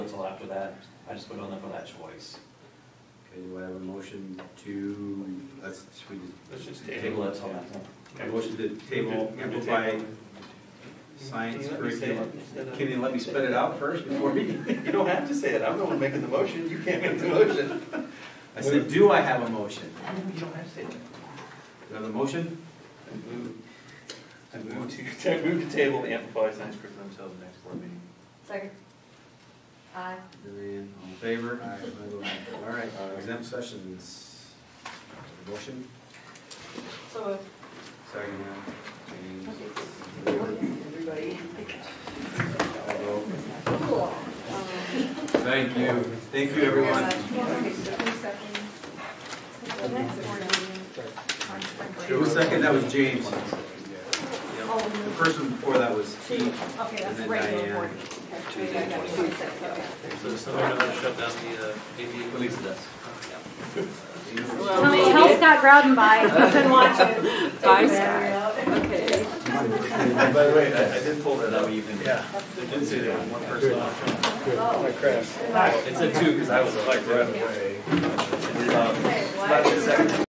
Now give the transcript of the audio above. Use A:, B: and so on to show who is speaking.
A: after that, I just put on there for that choice.
B: Okay, do I have a motion to, let's, should we
C: Let's just
B: just.
A: Table it till next time.
B: A motion to table amplify science
C: Can you let me say it
B: curriculum.
C: instead of-
B: Can you let me spit it out first before we?
C: You don't have to say it, I'm the one making the motion, you can't make the motion.
B: I said, do I have a motion?
C: You don't have to say it.
B: Do I have a motion?
C: I move, I move to, I move to table the amplified science curriculum until the next board meeting.
D: Second. Aye.
B: Julian, all in favor? I vote aye. All right, exempt sessions. Motion?
D: So moved.
B: Second, James.
D: Everybody.
B: Although-
D: Cool.
B: Thank you. Thank you, everyone.
D: The next board meeting. on spring break.
B: Who was second? That was James. Yep. The
D: Oh,
B: person before that was
D: two.
B: Steve.
D: Okay,
B: And
D: that's
B: then
D: regular
B: Diane.
D: board.
A: Two,
D: Okay, I got
A: twenty-six.
D: it. Twenty-six, okay.
E: So someone gonna shut down the uh, AV?
A: Release the desk.
D: Tell me, tell Scott Groudon bye, he's been watching. Bye, Scott. Okay.
C: By the way, I, I did pull
A: Is
C: that
A: that
C: up.
A: what you've been?
C: They did say there was one person off.
D: Oh,
E: It said two, because I was like right away.
A: It's, uh,
D: okay,
A: it's not
D: why?
A: the second.